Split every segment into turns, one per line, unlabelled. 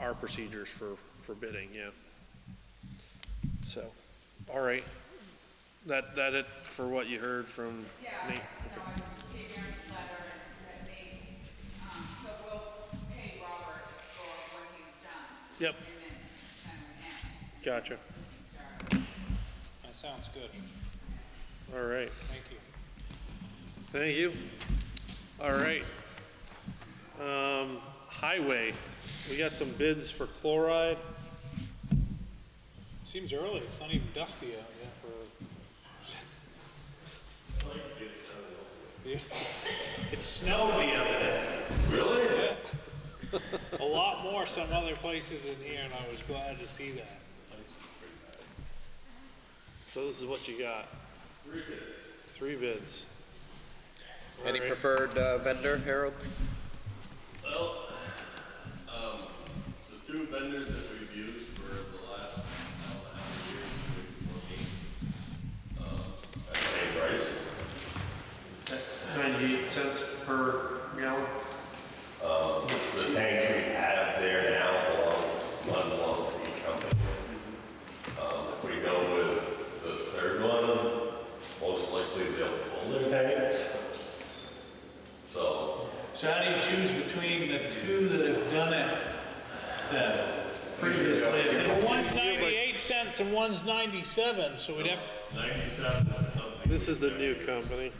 our procedures for, for bidding, yeah. So, all right, that, that it for what you heard from
Yeah,
Nate?
no, I just gave Aaron's letter and that they, um, so we'll pay Robert for what he's done.
Yep.
And then, um, and
Gotcha,
start.
That sounds good.
all right,
Thank you.
thank you. All right. Um, highway, we got some bids for chloride,
Seems early. It's not even dusty out yet for.
it snowed the other day.
A lot more some other places in here, and I was glad to see that.
So this is what you got? Three bids. Three bids.
Any
Alright.
preferred uh, vendor, Harold?
Well, um, the two vendors that we've used for the last, I don't know how many years, maybe fourteen. Um, at the same price.
98 cents per gallon?
Um, The tanks we have there now belong, one belongs to each company. Um, if we go with the third one, most likely they'll pull their tanks. So,
So how do you choose between the two that have done it then previously? Well, one's 98 cents and one's 97, so we'd have,
ninety-seven is the company.
This is the new company.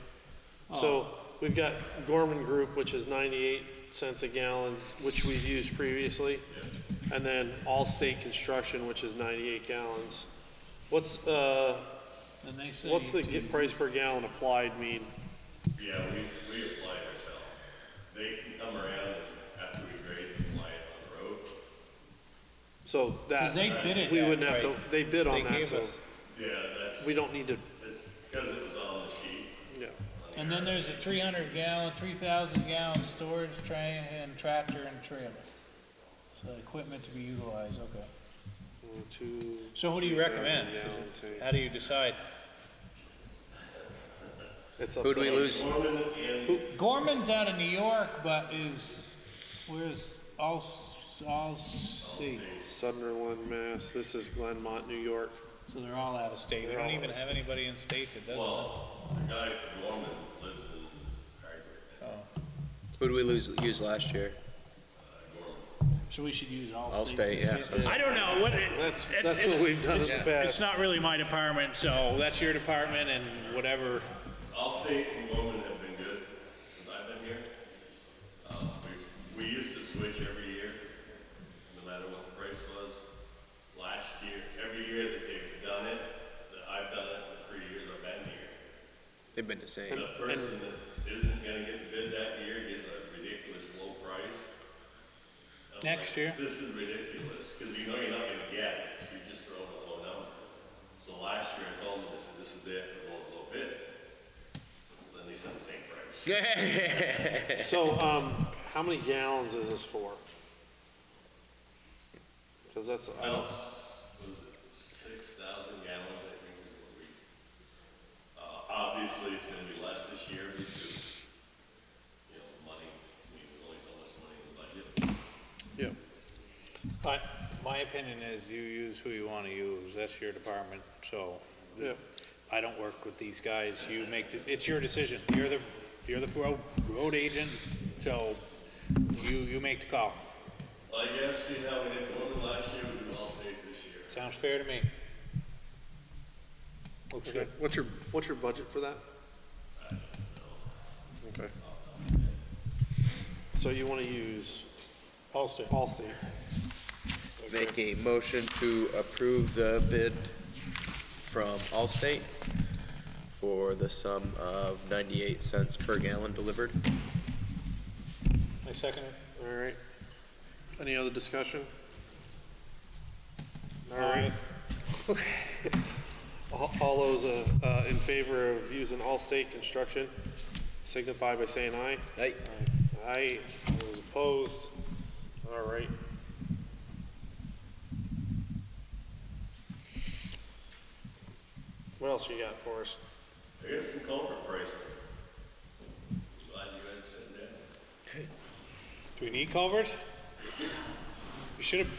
So
Oh.
we've got Gorman Group, which is 98 cents a gallon, which we've used previously. And then Allstate Construction, which is 98 gallons. What's, uh,
and they say.
what's the
to-
get price per gallon applied mean?
Yeah, we, we apply it ourselves. They can come around after we grade and apply it on the road.
So
'cause
that,
they bid it.
we
that
wouldn't have to,
way.
they bid
They
on that,
gave
so
us.
Yeah, that's,
we don't need to,
it's because it was on the sheet.
yeah.
And then there's a 300 gallon, 3,000 gallon storage tray and tractor and trailer. So equipment to be utilized, okay.
One, two,
So who do you recommend?
gallon
How
tanks.
do you decide?
It's up
Who do
to
we
us.
lose?
Norman and
Gorman's out of New York, but is, where's all, all state?
Sunderland, Mass. This is Glenmont, New York.
So they're all out of state. We
They're
don't
all
even
out of
have
state.
anybody in state that does that.
Well, the guy from Norman lives in Hardwick.
Who did we lose, use last year?
So we should use all
All
state.
state, yeah.
I don't know, what,
That's,
it-
that's
it-
what we've done in the
it's- It's
past.
not really my department, so that's your department and whatever.
Allstate and Norman have been good since I've been here. Um, we, we used to switch every year, no matter what the price was. Last year, every year that they've done it, that I've done it for three years I've been here.
They've been the same.
The person that isn't gonna get bid that year gets a ridiculous low price. I'm
Next
like,
year.
This is ridiculous, cause you know you're not gonna get it, so you're just throwing a low number. So last year I told them, I said, this is it, I won't low bid. Then they said the same price.
So, um, how many gallons is this for? Cause that's, uh,
I don't, s- was it six thousand gallons, I think is what we, uh, obviously it's gonna be less this year because, you know, money, I mean, there's only so much money in the budget.
yeah,
I, my opinion is you use who you want to use, that's your department, so
yeah.
I don't work with these guys, you make, the- it's your decision, you're the, you're the road, road agent, so you, you make the call.
Well, you have seen how we did Norman last year, we do Allstate this year.
Sounds fair to me. Looks
Okay.
good.
What's your, what's your budget for that? Okay. So you wanna use
Allstate.
Allstate?
Make a motion to approve the bid from Allstate for the sum of 98 cents per gallon delivered.
I second it.
All right. Any other discussion? All
Aye.
right. All, all those, uh, uh, in favor of using Allstate Construction signify by saying aye.
Aye.
Aye, all those opposed, all right. What else you got for us?
I got some culvert pricing. Glad you guys said that.
Do we need culverts? We should have